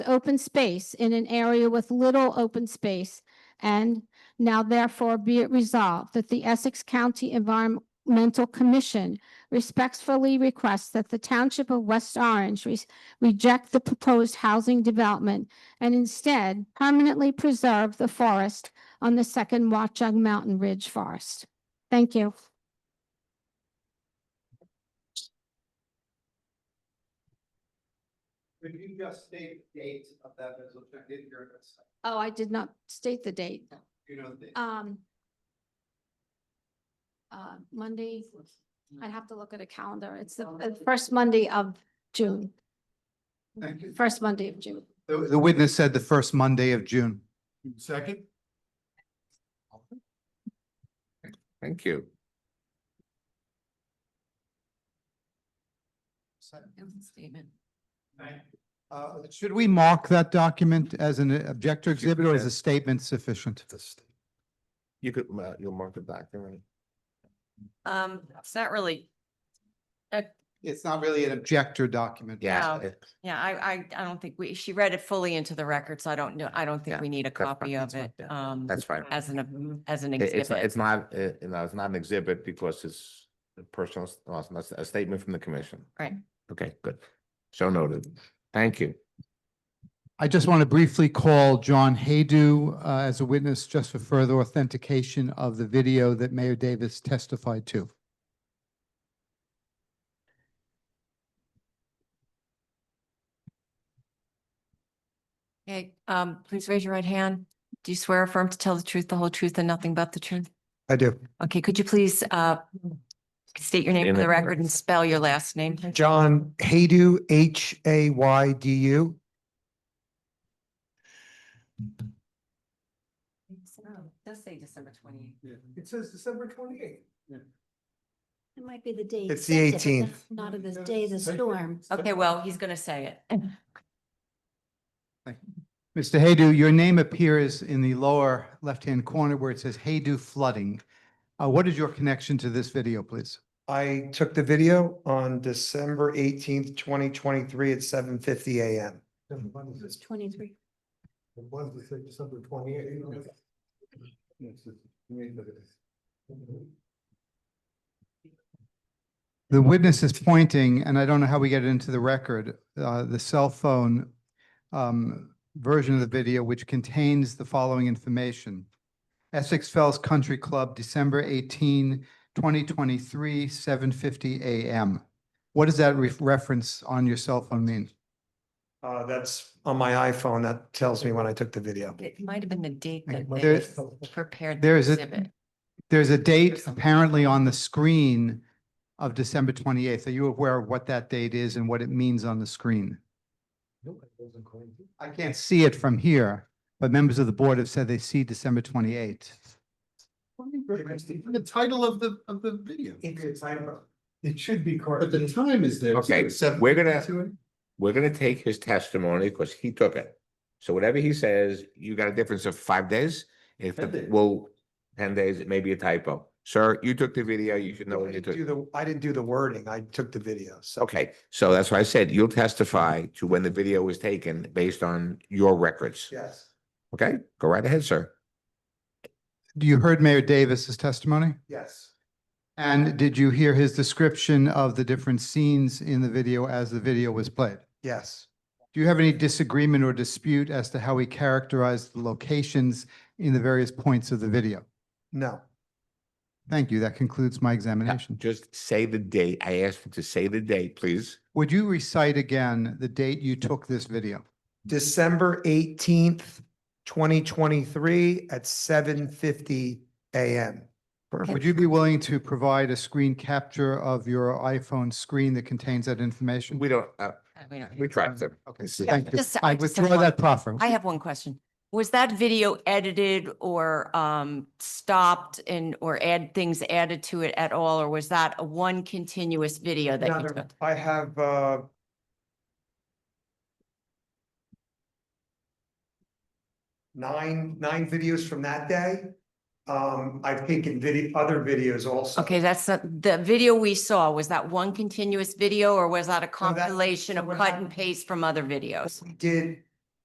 the open space in an area with little open space. And now therefore be it resolved that the Essex County Environmental Commission respectfully requests that the Township of West Orange re- reject the proposed housing development and instead permanently preserve the forest on the second Watchung Mountain Ridge Forest. Thank you. Could you just state the date of that resolution? I didn't hear it. Oh, I did not state the date. You know, the, Um. Uh, Monday, I'd have to look at a calendar. It's the uh, first Monday of June, thank you. first Monday of June. The, the witness said the first Monday of June. Second? Thank you. Statement. Uh, should we mark that document as an objector exhibit or is a statement sufficient? You could, uh, you'll mark it back, all right? Um, it's not really, It's not really an objector document. Yeah, No. it- yeah, I, I, I don't think we, she read it fully into the record, so I don't know, I don't think Yeah, we need a fine, copy that's of fine, it, yeah, um, that's fine. as an, as an It- It's, not- exhibit. it's not, uh, no, it's not an exhibit because it's a personal, s- well, it's not a statement from the commission. Right. Okay, good. So noted. Thank you. I just want to briefly call John Haydu, uh, as a witness just for further authentication of the video that Mayor Davis testified to. Okay, um, please raise your right hand. Do you swear or affirm to tell the truth, the whole truth, and nothing but the truth? I do. Okay, could you please, uh, state your name In for the the- record and spell your last name? John Haydu, H A Y D U. Does say December twenty. It says December twenty-eighth. It might be the day. It's the accepted, but 18th. Not of the day of the storm. Okay, well, he's gonna say it. Mr. Haydu, your name appears in the lower left-hand corner where it says Haydu Flooding. Uh, What is your connection to this video, please? I took the video on December eighteenth, twenty twenty-three at seven fifty AM. It's twenty-three. The witness is pointing, and I don't know how we get it into the record, uh, the cell phone um, version of the video, which contains the following information. Essex Fells Country Club, December 18, 2023, 7:50 a.m. What does that ref- reference on your cell phone mean? Uh, that's on my iPhone. That tells me when I took the video. It might have been the date Okay, that well, they there's- prepared the There is exhibit. a, there's a date something. apparently on the screen of December 28th. Are you aware of what that date is and what it means on the screen? I can't see it from here, but members of the board have said they see December 28th. The title of the, of the video, It should be but correct. the time is there. Okay, we're gonna, we're gonna take his testimony because he took it. So whatever he says, you got a difference of five days? If, Ten days. well, ten days, it may be a typo. Sir, you took the video, you should know I what you didn't took. do the, I didn't do the wording. I took the video. So. Okay, so that's why I said you'll testify to when the video was taken based on your records. Yes. Okay, go right ahead, sir. You heard Mayor Davis's testimony? Yes. And did you hear his description of the different scenes in the video as the video was played? Yes. Do you have any disagreement or dispute as to how he characterized the locations in the various points of the video? No. Thank you. That concludes my examination. Just say the date. I asked you to say the date, please. Would you recite again the date you took this video? December eighteenth, twenty twenty-three at seven fifty AM. Would you be willing to provide a screen capture of your iPhone screen that contains that information? We don't, uh, Uh, we don't- we tracked them. Okay, see. thank you. Just- I I just have withdraw one- that proffer. I have one question. Was that video edited or um stopped and or add things added to it at all? Or was that a one continuous video that you took? I have, uh, nine, nine videos from that day. Um, I've taken video, other videos also. Okay, that's not, the video we saw, was that one continuous video or was that a so compilation of what cut and happened- paste from other videos? We did